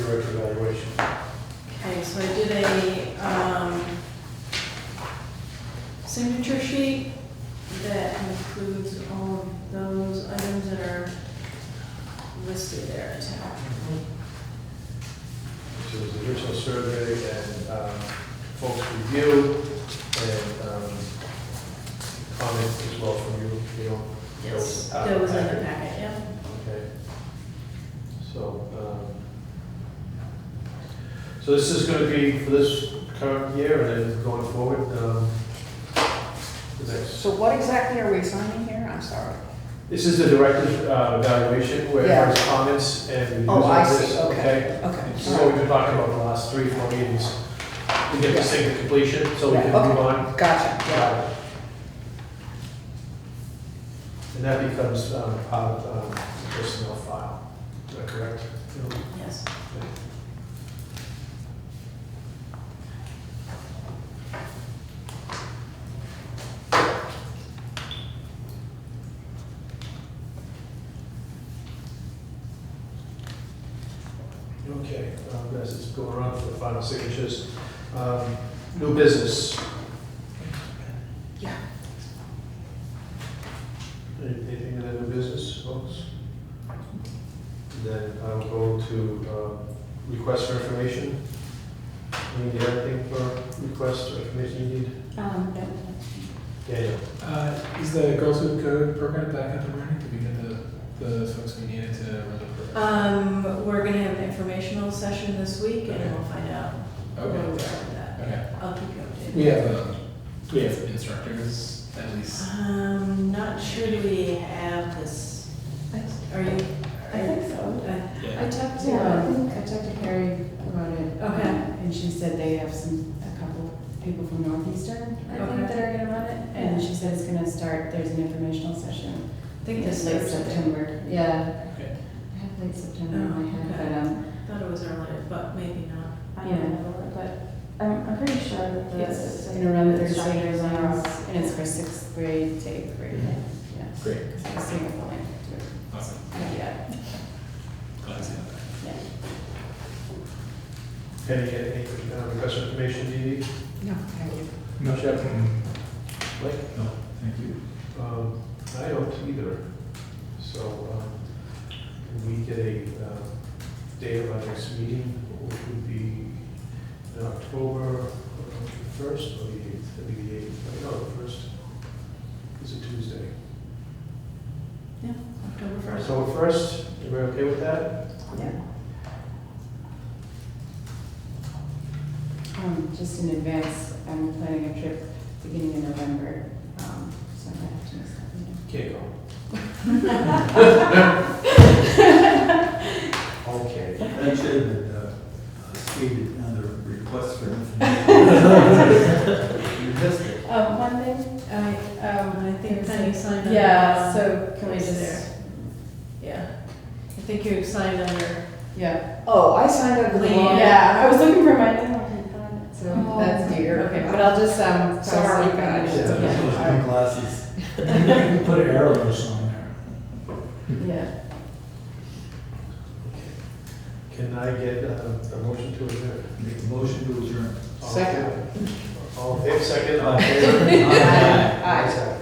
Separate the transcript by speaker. Speaker 1: director evaluation.
Speaker 2: Okay, so I did a, um, signature sheet that includes all of those items that are listed there in town.
Speaker 1: So it was the original survey and um, folks review and um, comment as well from you, you know.
Speaker 2: Yes,
Speaker 1: uh,
Speaker 2: that was in the
Speaker 1: packet.
Speaker 2: packet, yeah.
Speaker 1: Okay. So, um, so this is gonna be for this current year and then going forward, um, the next.
Speaker 3: So what exactly are we signing here? I'm sorry.
Speaker 1: This is the director's uh, evaluation where
Speaker 3: Yeah.
Speaker 1: there's comments and.
Speaker 3: Oh, I
Speaker 1: reviews of
Speaker 3: see,
Speaker 1: this,
Speaker 3: okay,
Speaker 1: This
Speaker 3: okay.
Speaker 1: is what we've been talking about for the last three, four meetings. We get this thing to completion, so we can
Speaker 3: Yeah, okay.
Speaker 1: move on.
Speaker 3: Gotcha, yeah.
Speaker 1: Uh, And that becomes um, part of um, the personnel file, is that correct? Phil?
Speaker 2: Yes.
Speaker 1: Okay, um, as it's going around for the final signatures, um, new business.
Speaker 3: Yeah.
Speaker 1: Anything in the new business, folks? Then I'll go to uh, request for information. You need anything for request or information you need?
Speaker 3: Um,
Speaker 1: Daniel?
Speaker 4: Uh, Is the Girls with Code program back up and running? Did we get the, the folks we needed to run the program?
Speaker 2: Um, we're gonna have an informational session this week and we'll find out where we are
Speaker 4: Okay,
Speaker 2: with that.
Speaker 4: okay.
Speaker 2: I'll keep you updated.
Speaker 4: We have, um, do we have instructors at least?
Speaker 2: Um, not sure do we have this, are you?
Speaker 5: I think so.
Speaker 2: Uh,
Speaker 5: I
Speaker 4: Yeah.
Speaker 5: talked to,
Speaker 2: Yeah.
Speaker 5: um, I talked to Carrie about it.
Speaker 2: Okay.
Speaker 5: um, And she said they have some, a couple people from Northeastern, I
Speaker 2: Okay.
Speaker 5: think, that are gonna run it. And she said it's gonna start, there's an informational session.
Speaker 2: I think this
Speaker 5: Late
Speaker 2: Thursday.
Speaker 5: September, yeah.
Speaker 4: Okay.
Speaker 5: I have late September in my
Speaker 2: Oh, okay.
Speaker 5: head, but, um,
Speaker 2: Thought it was earlier, but maybe not.
Speaker 5: I don't remember, but I'm, I'm pretty sure that
Speaker 2: Yes.
Speaker 5: it's gonna run third
Speaker 2: It's-
Speaker 5: graders on, and it's for sixth grade to eighth grade. Yeah.
Speaker 4: Great,
Speaker 5: Because I was seeing if the link to
Speaker 4: awesome.
Speaker 5: it. Yeah,
Speaker 4: Glad to see that.
Speaker 5: yeah.
Speaker 1: Penny, any uh, request for information you need?
Speaker 3: No, thank you.
Speaker 1: No. Jeff? Blake?
Speaker 4: No, thank you.
Speaker 1: Um, I don't either. So, um, can we get a, uh, date of our next meeting, which would be in October first or the eighth, it'd be the eighth, no, the first, it's a Tuesday.
Speaker 2: October first.
Speaker 1: October first, everybody okay with that?
Speaker 5: Um, just in advance, I'm planning a trip beginning in November, um, so I might have to miss that
Speaker 1: Can't
Speaker 5: meeting.
Speaker 1: go. Okay.
Speaker 6: That should have been, uh, stated under request for information. You missed it.
Speaker 5: Um, one thing, I, um,
Speaker 2: I think Penny signed under.
Speaker 5: yeah, so can we
Speaker 2: it's
Speaker 5: just,
Speaker 2: there. Yeah. I think you signed under.
Speaker 5: yeah,
Speaker 3: Oh, I signed up for the law.
Speaker 5: yeah, I was looking for my name, I couldn't find it, so
Speaker 3: Oh.
Speaker 5: that's dear.
Speaker 2: Okay.
Speaker 5: But I'll just, um.
Speaker 3: Sorry,
Speaker 5: post it.
Speaker 3: guys.
Speaker 6: Yeah,
Speaker 5: Yeah.
Speaker 6: those big glasses. You can put arrows on there.
Speaker 5: Yeah,
Speaker 1: Can I get uh, a motion to adjourn?
Speaker 6: Make a motion to adjourn.
Speaker 1: All-
Speaker 3: Second.
Speaker 1: All, in favor? second, all in favor?
Speaker 5: Aye. Aye.
Speaker 1: Ayes have it.